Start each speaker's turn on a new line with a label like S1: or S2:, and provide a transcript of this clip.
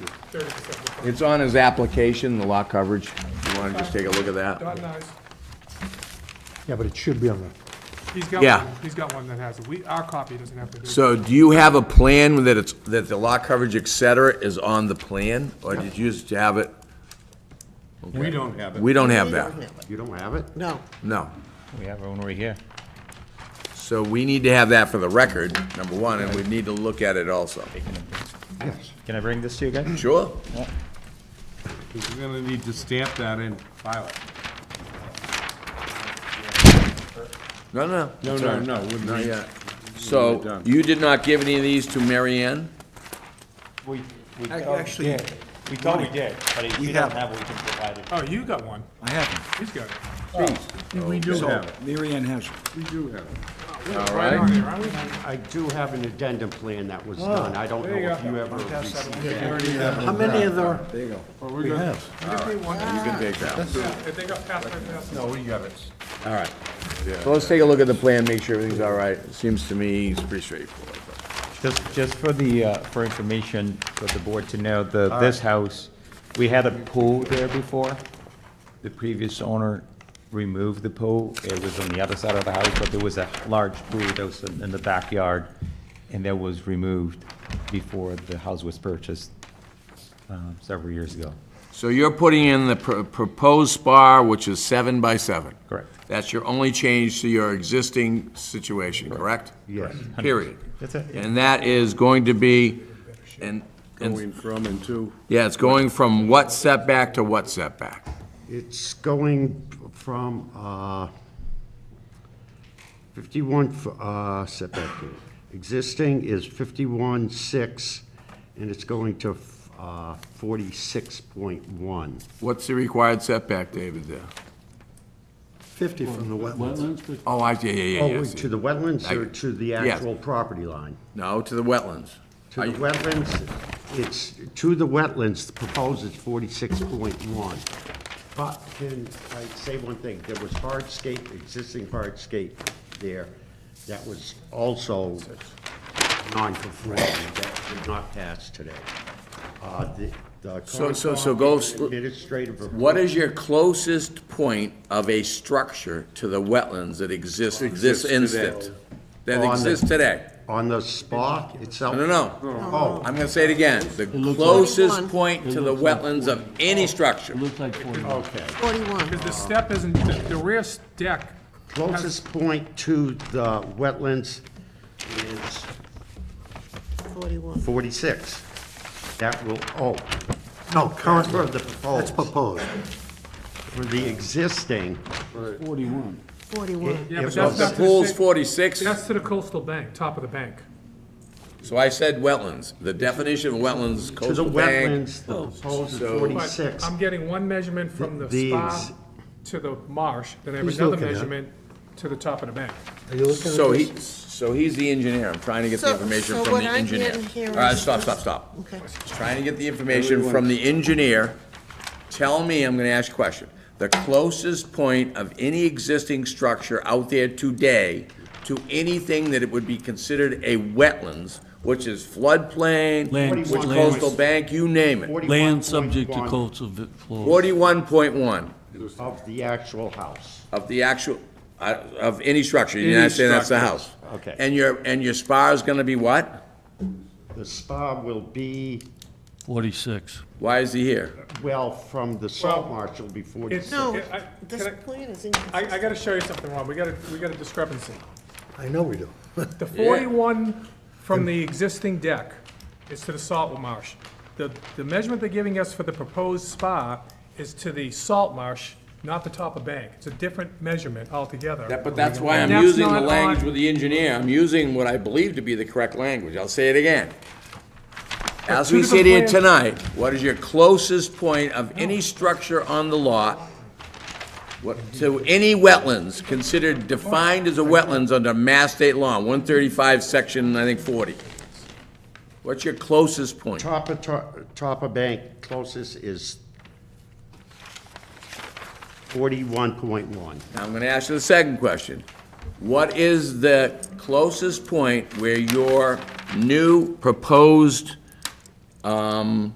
S1: thirty percent of the property.
S2: It's on his application, the lot coverage. You wanna just take a look at that?
S1: Dot nines,
S3: Yeah, but it should be on the,
S1: he's got
S2: Yeah.
S1: one, he's got one that has it, we, our copy doesn't have to do. it.
S2: So do you have a plan that it's, that the lot coverage, et cetera, is on the plan? Or did you just have it?
S4: We don't have it.
S2: We don't have
S5: We
S2: that.
S5: don't have it.
S4: You don't have it?
S5: No,
S2: No.
S6: We have one right here.
S2: So we need to have that for the record, number one, and we need to look at it also.
S4: Yes.
S6: Can I bring this to you guys?
S2: Sure?
S4: Because You're gonna need to stamp that and file it.
S2: No, no.
S4: No,
S2: it's
S4: no,
S2: all right.
S4: no, wouldn't
S2: Not
S4: be-
S2: yet.
S4: be
S2: So
S4: done.
S2: you did not give any of these to Mary Ann?
S6: We, we
S7: Actually,
S6: we thought we did, but if you
S7: have-
S6: don't have, we can provide it.
S1: Oh, you got one,
S7: I haven't.
S1: he's got it.
S4: We do have it,
S7: Mary Ann has.
S4: we do have it.
S2: All
S1: Right on
S2: right.
S1: there, aren't we?
S8: I do have an addendum plan that
S3: Oh,
S8: was done. I don't know
S1: you
S8: if
S1: go.
S8: you ever received
S7: How many of the? There you go.
S4: we
S7: We have.
S2: You can take that. one.
S1: If they got passed, they passed.
S4: No, we got it.
S2: All right. So let's take a look at the plan, make sure everything's all right. Seems to me it's pretty straightforward.
S6: Just, just for the, uh, for information for the board to know, the, this house, we had a pool there before. The previous owner removed the pool. It was on the other side of the house, but there was a large pool that was in in the backyard, and that was removed before the house was purchased, uh, several years ago.
S2: So you're putting in the pr- proposed spar, which is seven by seven?
S6: Correct.
S2: That's your only change to your existing situation, correct? Yes. Period.
S6: That's it, yeah.
S2: And that is going to be, and, and,
S4: Going from and to.
S2: yeah, it's going from what setback to what setback?
S8: It's going from uh, 51 f- uh, setback. Existing is 51.6, and it's going to f- uh, 46.1.
S2: What's the required setback, David, there?
S7: 50 from the wetlands.
S2: Oh, I, yeah, yeah, yeah, yeah. I
S8: Oh,
S2: see.
S8: to the wetlands or to the
S2: Yes.
S8: actual property line?
S2: No, to the wetlands.
S8: To the wetlands, it's, to the wetlands, the proposed is forty-six point one. But can I say one thing? There was hardscape, existing hardscape there that was also non-conforming, that did not pass today. Uh, the- the
S2: So- so- so go s-
S8: Administrative.
S2: What is your closest point of a structure to the wetlands that exists this instant? That
S8: Oh, On the-
S2: exists today?
S8: On the spot itself?
S2: No, no, no.
S8: Oh,
S2: I'm gonna say it again, the
S5: like-
S2: closest
S5: 41.
S2: point to the wetlands of
S8: Oh.
S2: any structure.
S8: okay.
S5: 41.
S1: Because the step isn't, the the rear s- deck,
S8: Closest point to the wetlands is
S5: 41.
S8: 46. That will, oh, no, current, for the
S7: That's
S8: proposed,
S7: proposed.
S8: for the existing,
S5: 41.
S1: yeah,
S8: It
S1: but
S8: was-
S1: that's
S2: The
S1: not to the,
S2: pool's
S1: sa-
S2: forty-six,
S1: that's to the coastal bank, top of the bank.
S2: so I said wetlands. The definition of wetlands,
S8: to the
S2: coastal bank.
S8: wetlands, the proposed is
S2: So-
S1: But
S8: 46.
S1: Oh, I'm getting one measurement from the
S8: These-
S1: spa to the marsh, then I have
S7: He's
S1: another
S7: looking at it.
S1: measurement to the top of the bank.
S7: Are you looking at
S2: So he,
S7: this?
S2: so he's the engineer. I'm trying to get the
S5: So-
S2: information
S5: so
S2: from
S5: what
S2: the
S5: I'm
S2: engineer.
S5: getting here
S2: All right,
S5: is
S2: stop,
S5: this-
S2: stop, stop.
S5: Okay.
S2: Trying to get the information from the engineer. Tell me, I'm gonna ask a question. The closest point of any existing structure out there today to anything that it would be considered a wetlands, which is floodplain,
S9: Land-
S2: which
S8: lands.
S2: coastal bank, you name it.
S8: 41.1
S9: Land subject to coastal vi- flow.
S2: Forty-one point one
S8: Of the actual house.
S2: of the actual, uh, of any structure, you're not saying that's the house.
S8: Okay.
S2: And your, and your spar is gonna be what?
S8: The spa will be,
S9: 46.
S2: Why is he here?
S8: well, from the salt marsh will be 46.
S5: No,
S1: I- I-
S5: this
S1: can I-
S5: plan is
S1: I, I
S5: inconsistent.
S1: gotta show you something, Rob, we got a, we got a discrepancy.
S7: I know we do.
S1: The forty-one from the existing deck is to the salt marsh. The, the measurement they're giving us for the proposed spa is to the salt marsh, not the top of bank. It's a different measurement altogether.
S2: That- But that's why I'm
S1: That's
S2: using the
S1: not on-
S2: language with the engineer, I'm using what I believe to be the correct language, I'll say it again. As
S1: two
S2: we sit here
S1: different
S2: tonight, what is your closest point of any structure on the lot what- to any wetlands considered defined as a wetlands under Mass State Law, one thirty-five, section, I think, forty? What's your closest point?
S8: Top of, to- top of bank closest is 41.1.
S2: Now, I'm gonna ask you the second question. What is the closest point where your new proposed, um,